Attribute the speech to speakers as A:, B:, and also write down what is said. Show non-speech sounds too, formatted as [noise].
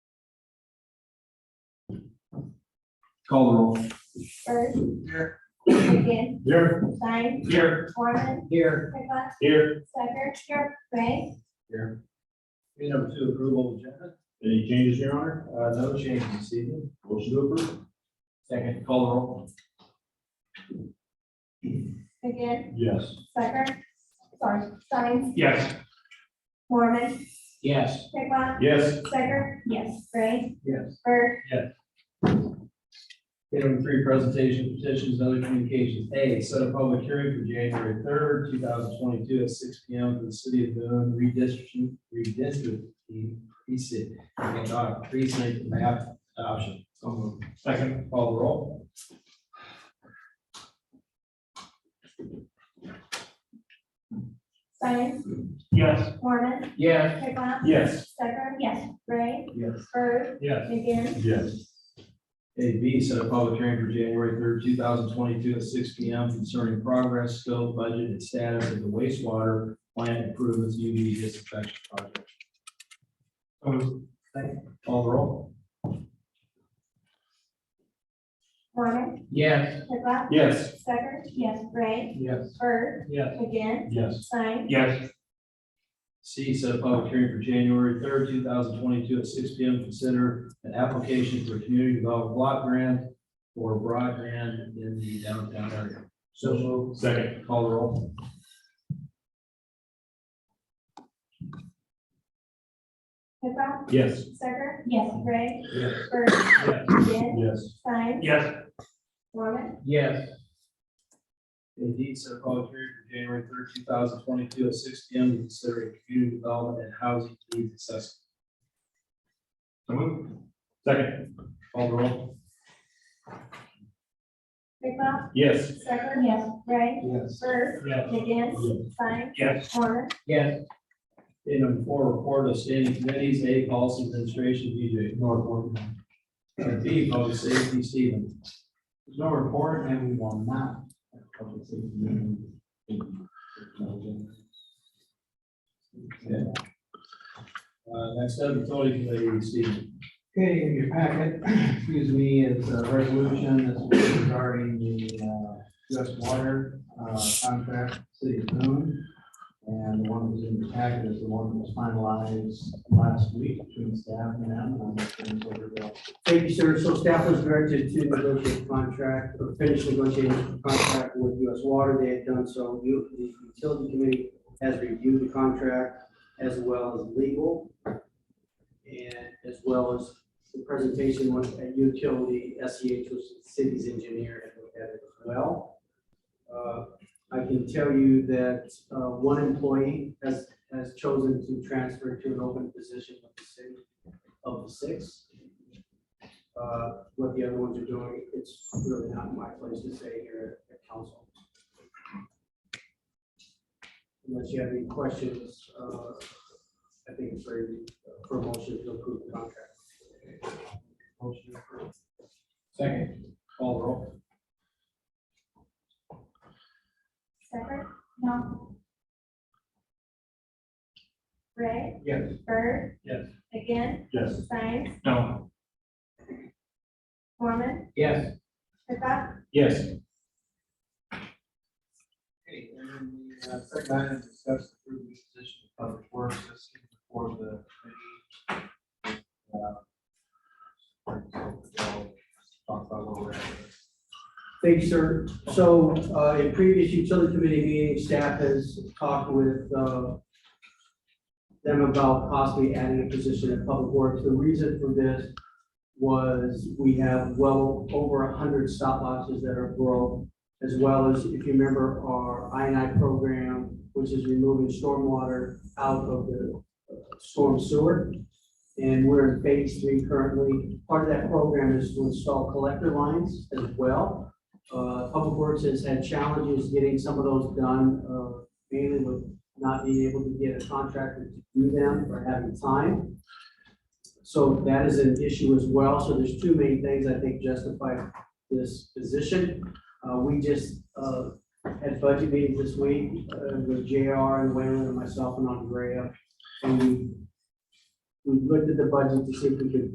A: Call the roll.
B: Bird.
C: Here.
B: Again,
C: Here.
B: Stein,
C: Here.
B: Mormon,
C: Here.
B: Pickla,
C: Here.
B: Sucker, Ray,
C: Item number two, approval of agenda. Any changes, Your Honor? Uh, no changes this evening. Motion to approve.
A: Second, call the roll.
B: again,
C: Yes.
B: Sucker, sorry, Stein,
C: Yes.
B: Mormon,
C: Yes.
B: Pickla,
C: Yes.
B: Sucker, yes, Ray,
C: Yes.
B: Bird,
C: Item three, presentation petitions, and other communications. A, set a public hearing for January third, two thousand twenty-two at six P M for the city of Boone redistricting, redistricting precinct, and dot precinct map adoption. So moved. Second, call the roll.
B: Stein,
C: Yes.
B: Mormon,
C: Yes.
B: Pickla,
C: Yes.
B: Sucker, yes, Ray,
C: Yes.
B: Bird,
C: Yes.
B: again,
C: Yes. A B, set a public hearing for January third, two thousand twenty-two at six P M concerning progress, scope, budget, and status of the wastewater plant improvements U V disinfection project. Call the roll.
B: Mormon,
C: Yes.
B: Pickla,
C: Yes.
B: Sucker, yes, Ray,
C: Yes.
B: Bird,
C: Yes.
B: again,
C: Yes.
B: Stein,
C: Yes. C, set a public hearing for January third, two thousand twenty-two at six P M. Consider an application for a community development block grant for broadband in the downtown area. So moved. Second. Call the roll.
B: Pickla,
C: Yes.
B: Sucker, yes, Ray,
C: Yes.
B: Bird,
C: Yes.
B: again,
C: Yes.
B: Stein,
C: Yes.
B: Mormon,
C: Yes. Indeed, set a public hearing for January third, two thousand twenty-two at six P M. to Consider community development and housing needs assessment. So moved. Second. Call the roll.
B: Pickla,
C: Yes.
B: Sucker, yes, Ray,
C: Yes.
B: Bird,
C: Yes.
B: again, Stein,
C: Yes.
B: Mormon,
C: Yes. Item number four, report of standing committees, A, policy administration, BJ Northwood. And B, public safety, Stephen. There's no report, and we will not. have public safety meeting. Okay. Uh, next up, utility committee, Stephen.
D: Okay, in your packet, [clears throat] excuse me, is a resolution that's regarding the uh, U.S. Water uh, contract, City of Boone. And the one that's in your packet is the one that was finalized last week between staff and them. and I'm gonna turn it over to Bill.
E: Thank you, sir. So staff was directed to negotiate contract, or finish negotiating contract with US Water. They had done so. You- The utility committee has reviewed the contract as well as legal. And as well as the presentation was at utility, E SEH was the city's engineer and looked at it as well. Uh, I can tell you that uh, one employee has, has chosen to transfer to an open position of the city, of the six uh, what the other ones are doing, it's really not my place to say here at council. Unless you have any questions, uh, I think it's very, for a motion to approve the contract.
D: Motion approved.
C: Second. Call the roll.
B: Sucker, no. Ray,
C: Yes.
B: Bird,
C: Yes.
B: again,
C: Yes.
B: Stein,
C: No.
B: Mormon,
C: Yes.
B: Pickla,
C: Yes.
D: Okay, and then the uh, second item is discuss the approved position of public works that's seen before the committee. Uh, Talk about what we're at.
E: Thank you, sir. So, uh, in previous utility committee meetings, staff has talked with, uh, them about possibly adding a position in public works. The reason for this was we have well over a hundred stop losses that are broke, as well as, if you remember, our I and I program, which is removing stormwater out of the uh, storm sewer. And we're in phase three currently. Part of that program is to install collector lines as well. Uh, Public Works has had challenges getting some of those done, uh, mainly with not being able to get a contractor to do them or having time. So that is an issue as well. So there's two main things I think justify this position. Uh, We just uh, had budget meetings this week uh, with JR and Wayland and myself and Andrea. And we we looked at the budget to see if we could